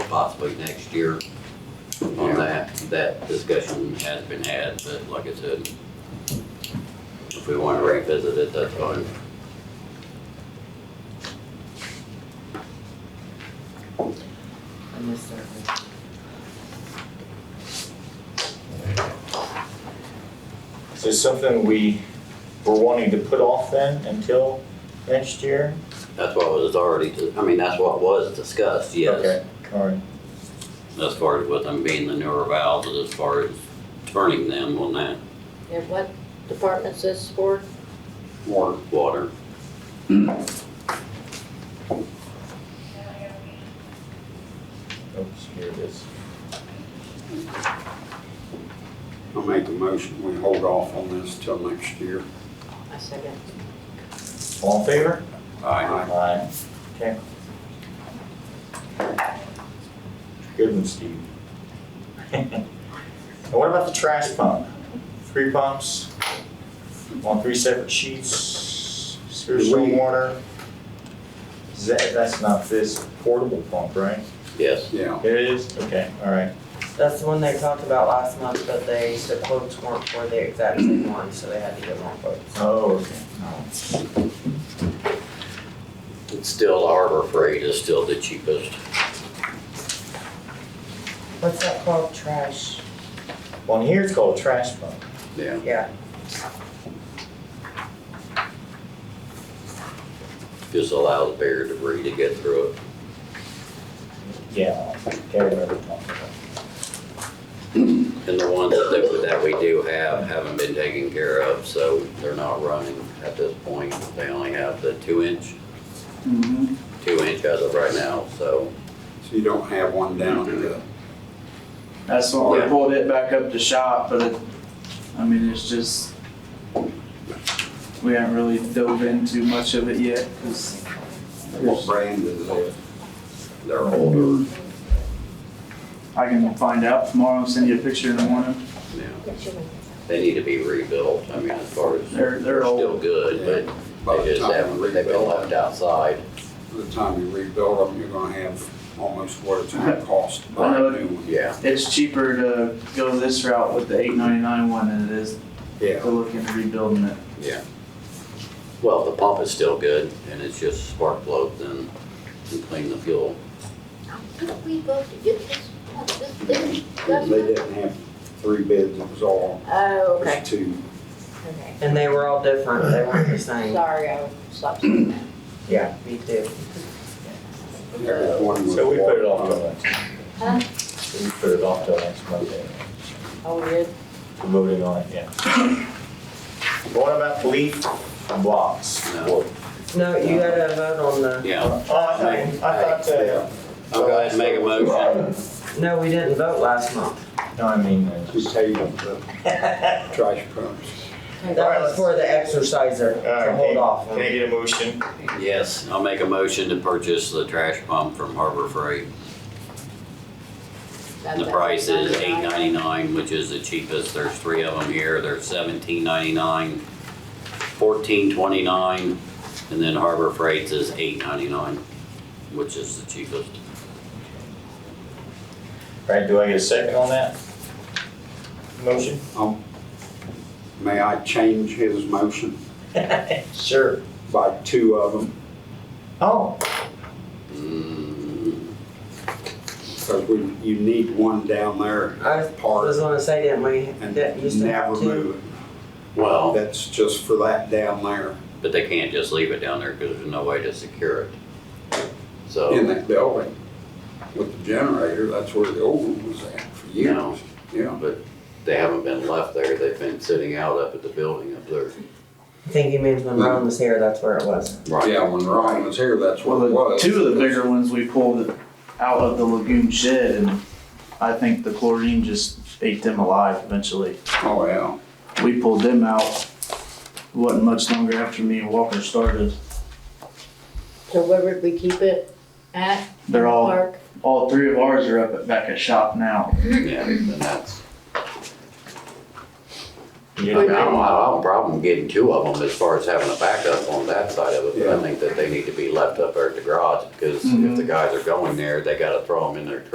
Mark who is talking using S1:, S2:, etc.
S1: possibly next year on that. That discussion has been had, but like I said, if we want to revisit it, that's fine.
S2: I missed that.
S3: Is this something we were wanting to put off then until next year?
S1: That's what was already, I mean, that's what was discussed, yes.
S3: Okay, all right.
S1: As far as with them being the newer valves, as far as turning them on that
S4: And what department's this for?
S1: water, water.
S3: Oops, here it is.
S5: I'll make the motion, we hold off on this till next year.
S4: I second.
S3: All in favor?
S1: Aye.
S3: Aye. Okay. Good one, Steve. And what about the trash pump? Three pumps on three separate sheets, sewer
S5: Do we-
S3: stormwater. Is that, that's not this portable pump, right?
S1: Yes,
S5: Yeah,
S3: It is? Okay, all right.
S2: That's the one they talked about last month, but they, the quotes weren't for the exact same one, so they had to get more quotes.
S3: Oh, okay.
S1: it's still Harbor Freight is still the cheapest.
S2: What's that called, trash?
S3: On here, it's called a trash pump.
S5: yeah.
S2: Yeah,
S1: Just allows bigger debris to get through it.
S3: Yeah, can't remember. the pump.
S1: And the ones that, that we do have haven't been taken care of, so they're not running at this point. They only have the two inch,
S6: Mm-hmm.
S5: So
S1: two inch as of right now, so.
S5: you don't have one down to the,
S6: That's why we pulled it back up to shop, but it, I mean, it's just, we haven't really dove into much of it yet, cause
S5: what brand is it?
S1: They're older,
S6: I can find out tomorrow and send you a picture in the morning.
S1: yeah. They need to be rebuilt, I mean, as far as.
S6: They're- they're old.
S1: Still good,
S5: By
S1: but they
S5: the
S1: just
S5: time
S1: haven't,
S5: you
S1: they've been
S5: rebuild
S1: left
S5: them,
S1: outside.
S5: by the time you rebuild them, you're gonna have almost what it's gonna cost to buy a new one.
S1: Yeah,
S6: It's cheaper to go this route with the eight ninety-nine one than it is to
S5: Yeah,
S6: look into rebuilding it.
S1: well, the pump is still good and it's just spark plug then and clean the fuel.
S4: Don't we vote to get this, this thing?
S5: they didn't have three bids, it was all,
S4: Oh,
S5: it
S4: okay,
S5: was two.
S4: okay.
S2: and they were all different, they weren't the same.
S4: Sorry, I stopped saying that.
S2: Yeah, me too.
S5: Every one was
S3: So we put it off
S5: water
S3: till next.
S4: Huh?
S3: We put it off till next Monday.
S4: Oh, we did?
S3: We're voting on it, yeah. What about leaf blocks?
S1: No.
S2: No, you gotta vote on the,
S1: Yeah,
S3: Oh, I thought, I thought, uh.
S1: I'll go ahead and make a motion.
S2: no, we didn't vote last month.
S3: No, I mean,
S5: pump. We tabled the
S3: uh.
S5: trash pumps.
S2: That was for the exerciser, to hold off
S3: Can I
S2: on.
S3: get a motion?
S1: Yes, I'll make a motion to purchase the trash pump from Harbor Freight. The price is eight ninety-nine, which is the cheapest. There's three of them here. There's seventeen ninety-nine, fourteen twenty-nine, and then Harbor Freight's is eight ninety-nine, which is the cheapest.
S3: Right, do I get a second on that? Motion?
S5: May I change his motion
S3: Sure.
S5: by two of them?
S3: Oh,
S1: Mm,
S5: Because we, you need one down there
S2: I was
S5: part
S2: gonna say, didn't we,
S5: and
S2: that used to
S5: never
S2: have two?
S5: move it.
S1: Well,
S5: That's just for that down there
S1: but they can't just leave it down there because there's no way to secure it.
S5: in
S1: So,
S5: that building with the generator. That's where the old one was at for
S1: No.
S5: years. Yeah.
S1: but they haven't been left there. They've been sitting out up at the building up there.
S2: I think he means when Ron was here, that's where it was.
S5: Yeah, when Ryan was here, that's
S6: Well,
S5: what it
S6: the,
S5: was.
S6: two of the bigger ones we pulled out of the lagoon shed and I think the chlorine just ate them alive eventually.
S5: Oh, yeah.
S6: we pulled them out. wasn't much longer after me and Walker started.
S4: So where would we keep it at?
S6: They're all,
S4: Park?
S6: all three of ours are up at, back at shop now.
S1: Yeah, and that's.
S3: you
S1: I mean,
S3: know,
S1: I don't, I don't have a problem getting two of them as far as having a backup on that side of it, but I
S5: Yeah.
S1: think that they need to be left up there at the garage, because if
S6: Mhm.
S1: the guys are going there, they gotta throw them in their